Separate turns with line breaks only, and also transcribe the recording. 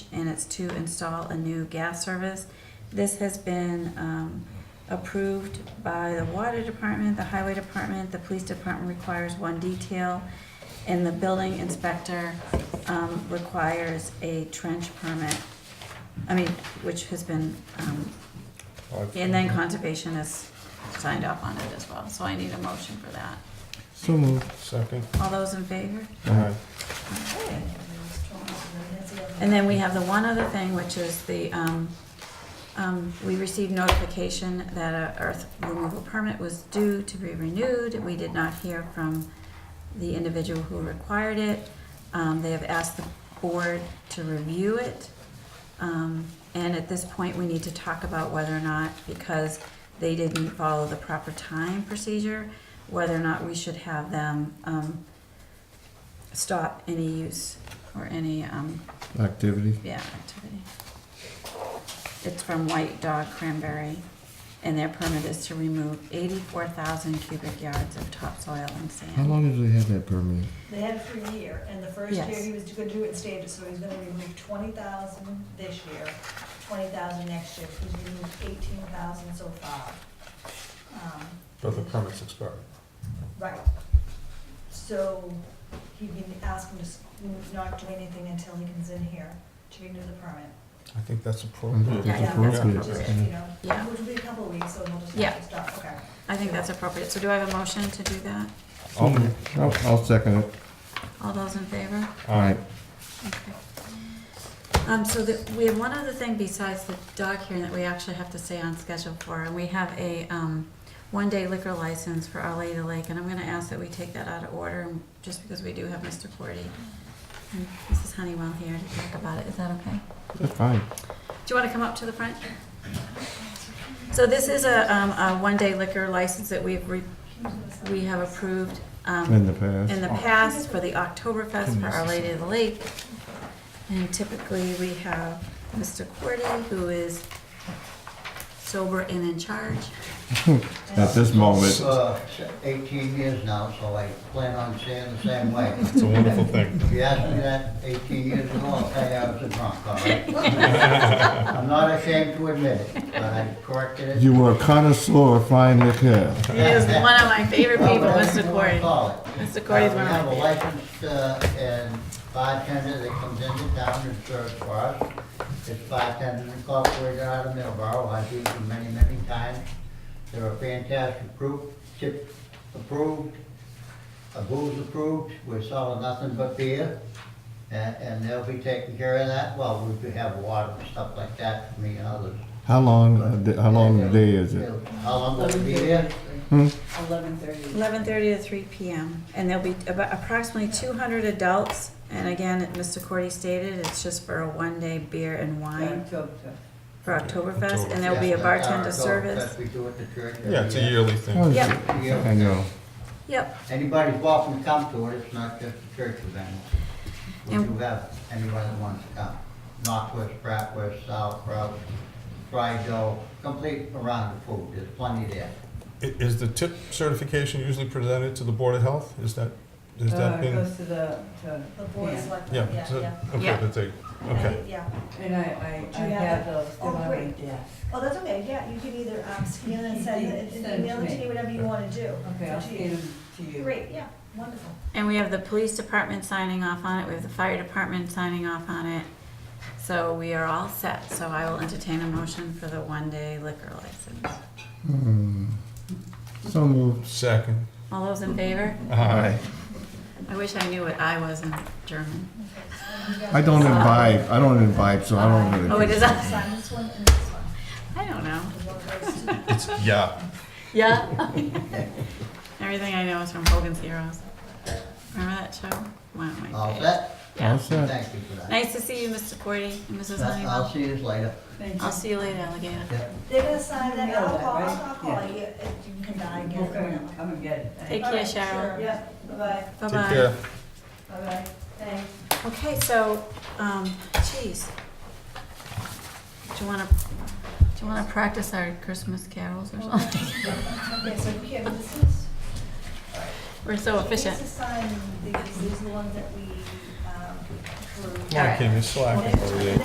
and it's to install a new gas service. This has been um, approved by the water department, the highway department, the police department requires one detail, and the building inspector um, requires a trench permit, I mean, which has been, um, and then conservation has signed up on it as well, so I need a motion for that.
So moved.
Second.
All those in favor?
Aye.
Okay. And then we have the one other thing, which is the, um, um, we received notification that a earth removal permit was due to be renewed. We did not hear from the individual who required it. Um, they have asked the board to review it. Um, and at this point, we need to talk about whether or not, because they didn't follow the proper time procedure, whether or not we should have them, um, stop any use or any, um,
Activity.
yeah, activity. It's from White Dog Cranberry, and their permit is to remove eighty-four thousand cubic yards of topsoil and
How
sand.
long have they had that permit?
They had it for a year, and the first
Yes.
year he was gonna do it in stages, so he's gonna remove twenty thousand this year, twenty thousand next year, he's removed eighteen thousand so far. Um,
But the permit's expired.
Right. So he can ask him to s- not do anything until he comes in here to renew the permit.
I think that's
I
appropriate.
think that's
Yeah,
appropriate.
Just, you know,
Yeah.
which will be a couple of weeks, so we'll just
Yeah.
have to stop, okay.
I think that's appropriate, so do I have a motion to do that?
I'll-
I'll, I'll second it.
All those in favor?
Aye.
Okay. Um, so the, we have one other thing besides the dog hearing that we actually have to stay on schedule for, and we have a, um, one-day liquor license for Our Lady Lake, and I'm gonna ask that we take that out of order, just because we do have Mr. Forty and Mrs. Honeywell here to talk about it, is that okay?
That's fine.
Do you want to come up to the front? So this is a, um, a one-day liquor license that we've, re- we have approved,
In
um,
the past.
in the past for the Oktoberfest for Our Lady of the Lake. And typically, we have Mr. Cordy, who is sober and in charge.
At this moment.
Uh, Eighteen years now, so I plan on staying the same way.
It's a wonderful thing.
If you asked me that eighteen years ago, I'll tell you I was a drunk, all right? I'm not ashamed to admit it, but I corrected it.
You were a connoisseur of fine liquor.
He is one of my favorite
Well,
people,
whatever
Mr.
you wanna
Cordy.
call it.
Mr. Cordy's one of
Uh, We
my
have a
favorites.
licensed uh, and bartender that comes into town and serves for us. It's bartenders incorporated out of Middleborough, I've used them many, many times. They're a fantastic group, chip approved, a booze approved, we're selling nothing but beer. And, and they'll be taking care of that, well, we do have water and stuff like that for me and others.
How long, a day- Uh, how long a day is it?
How long will it be there?
Eleven thirty.
Eleven thirty to three PM, and there'll be about approximately two hundred adults, and again, Mr. Cordy stated, it's just for a one-day beer and wine for Oktoberfest, and there'll be a
Yes,
bartender
that's our
service.
goal. That's what we do at the church every
Yeah, it's a
year.
yearly thing.
Oh,
Yep.
Yeah.
I know.
Yep,
Anybody's welcome to come to it, it's not just a church event. We
And-
do have anyone that wants to come. Northwest, Bratwurst, Sauerkraut, fried dough, complete around the food, there's plenty there.
I- Is the tip certification usually presented to the Board of Health? Is that, is that
Uh, It
been?
goes to the, to,
The board
Yeah.
is like, yeah,
Yeah,
yeah.
so- okay,
Yeah.
but they, okay.
Yeah,
and I, I,
Do
I
you
have
have
those, they're
Oh,
on my
great.
desk.
oh, that's okay, yeah, you can either um, scan and send it,
Send it to
email it to
me.
me, whatever you wanna do.
Okay, I'll
It's up to you.
scan them to you.
Great, yeah, wonderful.
and we have the police department signing off on it, we have the fire department signing off on it. So we are all set, so I will entertain a motion for the one-day liquor license.
Hmm. So moved.
Second.
All those in favor?
Aye.
I wish I knew what I was in German.
I don't imbibe. I don't imbibe, so I don't really.
Oh, it is, I
Sign this one and this one.
don't know.
The one goes to-
It's, yeah.
Yeah. Everything I know is from Hogan's Heroes. Remember that show? One of my
All
favorites.
set?
All set.
Thank you for that.
Nice to see you, Mr. Cordy and Mrs.
I'll
Honeywell.
see you later.
Thank you.
I'll see you later, alligator.
Yeah.
They're gonna sign that,
You know
I'll
that,
call,
right?
I'll call
Yeah.
you, if you can die
We'll come
again.
and- come and get it.
Take
All
care,
right,
Cheryl.
sure. Yeah, bye-bye,
Take
Bye-bye.
care.
bye-bye, thanks.
Okay, so, um, geez. Do you wanna, do you wanna practice our Christmas carols or something?
Okay, so Kim, this is.
We're so efficient.
These assign, these, these are the ones that we, um, approved.
Come on, Kim, you're slacking over there.